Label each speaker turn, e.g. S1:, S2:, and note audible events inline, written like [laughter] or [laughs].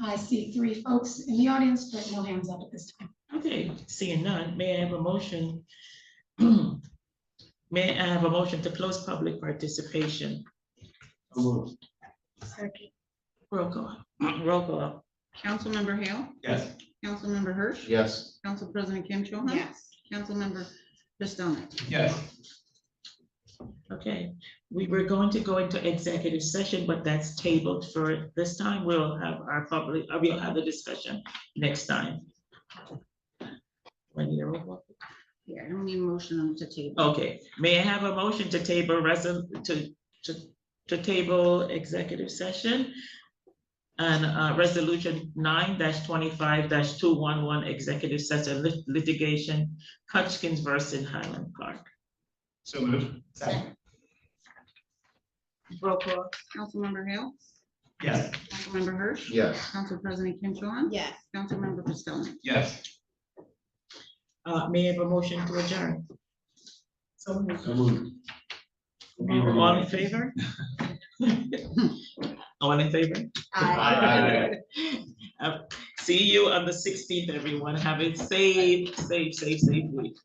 S1: I see three folks in the audience, but no hands up at this time.
S2: Okay, seeing none, may I have a motion? [clears throat] May I have a motion to close public participation? Roll call, [clears throat] roll call.
S3: Councilmember Hale,
S4: Yes.
S3: Councilmember Hirsch,
S4: Yes.
S3: Council President Kim Cho Han,
S1: Yes.
S3: Councilmember Pistonik.
S4: Yes.
S2: Okay, we were going to go into executive session, but that's tabled for this time. We'll have our public, uh, we'll have the discussion next time. When you're, over.
S3: Yeah, I don't need a motion on the table.
S2: okay, may I have a motion to table resol, to, to, to table executive session? And, uh, resolution nine twenty-five two one one, executive session lit- litigation, Hutchins versus Highland Park.
S4: So moved.
S3: Second.
S2: Roll call.
S3: Councilmember Hale,
S4: Yes.
S3: Councilmember Hirsch,
S4: Yes.
S3: Council President Kim Cho Han,
S1: Yes.
S3: Councilmember Pistonik.
S4: Yes.
S2: Uh, may I have a motion to adjourn? So moved.
S4: So moved.
S2: All in favor? [laughs] All in favor?
S4: Aye.
S2: [laughs] Uh, See you on the sixteenth, everyone. Have a safe, safe, safe, safe week.